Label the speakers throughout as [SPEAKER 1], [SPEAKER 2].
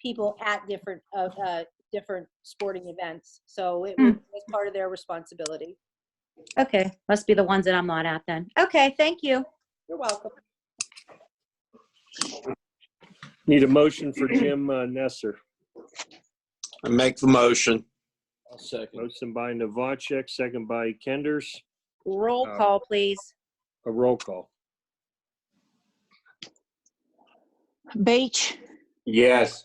[SPEAKER 1] people at different, uh, uh, different sporting events. So it was was part of their responsibility.
[SPEAKER 2] Hmm. Okay, must be the ones that I'm not at then. Okay, thank you.
[SPEAKER 1] You're welcome.
[SPEAKER 3] Need a motion for Jim uh, Nesser.
[SPEAKER 4] I make the motion.
[SPEAKER 5] I'll second.
[SPEAKER 3] Motion by Novacek, second by Kenders.
[SPEAKER 2] Roll
[SPEAKER 3] Uh,
[SPEAKER 4] Um,
[SPEAKER 2] call, please.
[SPEAKER 3] A roll call.
[SPEAKER 6] Beach,
[SPEAKER 4] Yes.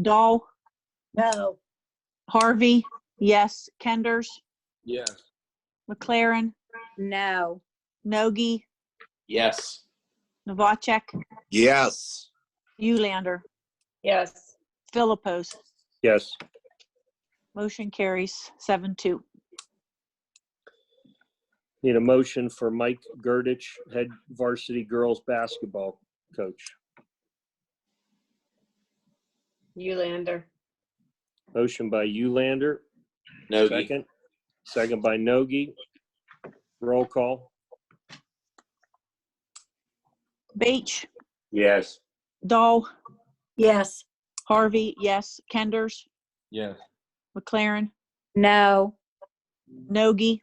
[SPEAKER 6] Dahl,
[SPEAKER 1] No.
[SPEAKER 6] Harvey, yes, Kenders,
[SPEAKER 5] Yes.
[SPEAKER 6] McLaren,
[SPEAKER 2] No.
[SPEAKER 6] Nogi,
[SPEAKER 5] Yes.
[SPEAKER 6] Novacek,
[SPEAKER 4] Yes.
[SPEAKER 6] Ulander,
[SPEAKER 1] Yes.
[SPEAKER 6] Philippos.
[SPEAKER 3] Yes.
[SPEAKER 6] Motion carries seven two.
[SPEAKER 3] Need a motion for Mike Girdich, head varsity girls basketball coach.
[SPEAKER 7] Ulander.
[SPEAKER 3] Motion by Ulander,
[SPEAKER 5] Nogi.
[SPEAKER 3] second. Second by Nogi. Roll call.
[SPEAKER 6] Beach,
[SPEAKER 4] Yes.
[SPEAKER 6] Dahl,
[SPEAKER 1] Yes.
[SPEAKER 6] Harvey, yes, Kenders,
[SPEAKER 5] Yes.
[SPEAKER 6] McLaren,
[SPEAKER 2] No.
[SPEAKER 6] Nogi,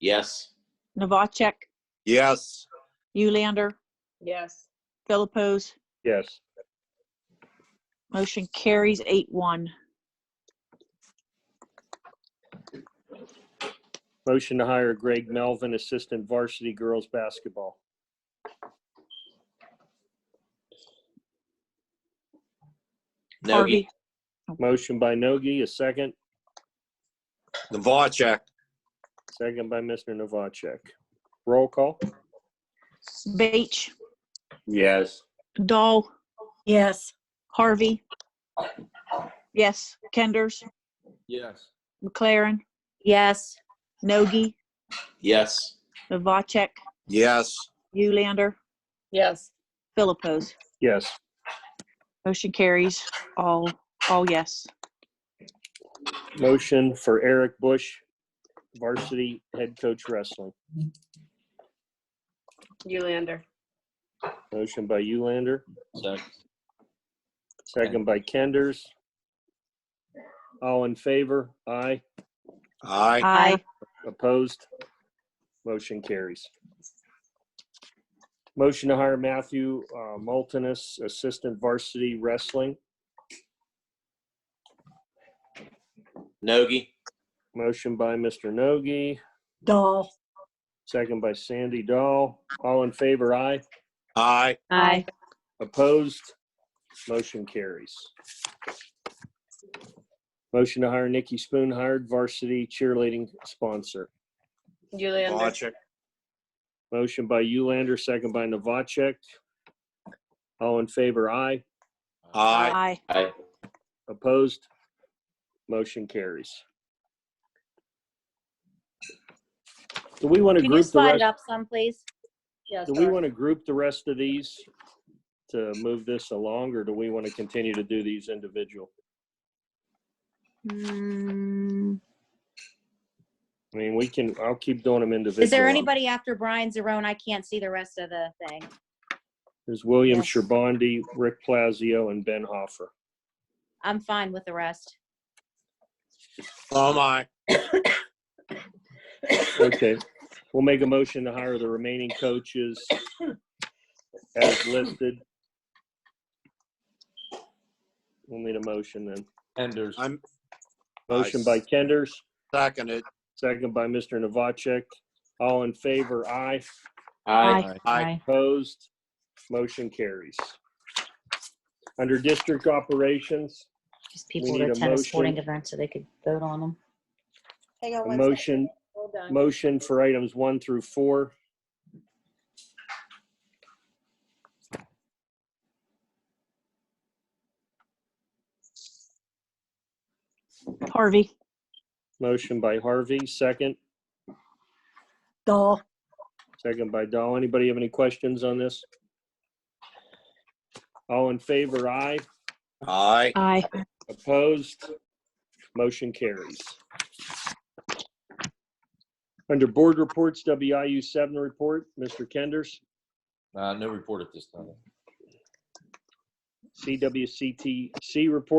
[SPEAKER 5] Yes.
[SPEAKER 6] Novacek,
[SPEAKER 4] Yes.
[SPEAKER 6] Ulander,
[SPEAKER 7] Yes.
[SPEAKER 6] Philippos.
[SPEAKER 3] Yes.
[SPEAKER 6] Motion carries eight one.
[SPEAKER 3] Motion to hire Greg Melvin, assistant varsity girls basketball.
[SPEAKER 5] Nogi.
[SPEAKER 6] Harvey,
[SPEAKER 3] Motion by Nogi, a second.
[SPEAKER 4] Novacek.
[SPEAKER 3] Second by Mr. Novacek. Roll call.
[SPEAKER 6] Beach,
[SPEAKER 4] Yes.
[SPEAKER 6] Dahl,
[SPEAKER 1] Yes.
[SPEAKER 6] Harvey, yes, Kenders,
[SPEAKER 5] Yes.
[SPEAKER 6] McLaren,
[SPEAKER 2] Yes.
[SPEAKER 6] Nogi,
[SPEAKER 5] Yes.
[SPEAKER 6] Novacek,
[SPEAKER 4] Yes.
[SPEAKER 6] Ulander,
[SPEAKER 7] Yes.
[SPEAKER 6] Philippos.
[SPEAKER 3] Yes.
[SPEAKER 6] Motion carries. All, all yes.
[SPEAKER 3] Motion for Eric Bush, varsity head coach wrestling.
[SPEAKER 7] Ulander.
[SPEAKER 3] Motion by Ulander,
[SPEAKER 5] Second.
[SPEAKER 3] second by Kenders. All in favor? Aye.
[SPEAKER 4] Aye.
[SPEAKER 6] Aye.
[SPEAKER 3] Opposed? Motion carries. Motion to hire Matthew uh, Moltenis, assistant varsity wrestling.
[SPEAKER 5] Nogi.
[SPEAKER 3] Motion by Mr. Nogi,
[SPEAKER 1] Doll.
[SPEAKER 3] second by Sandy Dahl. All in favor? Aye.
[SPEAKER 4] Aye.
[SPEAKER 2] Aye.
[SPEAKER 3] Opposed? Motion carries. Motion to hire Nikki Spoon, hired varsity cheerleading sponsor.
[SPEAKER 7] Ulander.
[SPEAKER 4] Novacek.
[SPEAKER 3] Motion by Ulander, second by Novacek. All in favor, aye.
[SPEAKER 4] Aye.
[SPEAKER 6] Aye.
[SPEAKER 5] Aye.
[SPEAKER 3] Opposed? Motion carries. Do we want to
[SPEAKER 2] Can you
[SPEAKER 3] group the
[SPEAKER 2] slide it
[SPEAKER 3] rest?
[SPEAKER 2] up some, please?
[SPEAKER 7] Yes.
[SPEAKER 3] Do we want to group the rest of these to move this along, or do we want to continue to do these individual?
[SPEAKER 2] Hmm.
[SPEAKER 3] I mean, we can, I'll keep doing them individual.
[SPEAKER 2] Is there anybody after Brian Zerone? I can't see the rest of the thing.
[SPEAKER 3] There's William
[SPEAKER 2] Yes.
[SPEAKER 3] Sherbondi, Rick Plazio, and Ben Hoffer.
[SPEAKER 2] I'm fine with the rest.
[SPEAKER 4] Oh my.
[SPEAKER 3] Okay, we'll make a motion to hire the remaining coaches as listed. We'll need a motion then.
[SPEAKER 5] Enders.
[SPEAKER 4] I'm
[SPEAKER 3] Motion by Kenders,
[SPEAKER 4] second it.
[SPEAKER 3] second by Mr. Novacek. All in favor, aye.
[SPEAKER 5] Aye.
[SPEAKER 4] Aye.
[SPEAKER 3] Opposed? Motion carries. Under district operations,
[SPEAKER 2] Just
[SPEAKER 3] We
[SPEAKER 2] people
[SPEAKER 3] need
[SPEAKER 2] that
[SPEAKER 3] a
[SPEAKER 2] attend a sporting
[SPEAKER 3] motion.
[SPEAKER 2] event so they could vote on them.
[SPEAKER 1] Hang
[SPEAKER 3] a
[SPEAKER 1] on Oh, one second.
[SPEAKER 3] motion,
[SPEAKER 1] Hold on.
[SPEAKER 3] motion for items one through four.
[SPEAKER 6] Harvey,
[SPEAKER 3] Motion by Harvey, second.
[SPEAKER 1] Doll.
[SPEAKER 3] Second by Dahl. Anybody have any questions on this? All in favor, aye.
[SPEAKER 4] Aye.
[SPEAKER 6] aye.
[SPEAKER 3] Opposed? Motion carries. Under board reports, WIU seven report, Mr. Kenders.
[SPEAKER 5] Uh, no report at this time.
[SPEAKER 3] CWCTC report,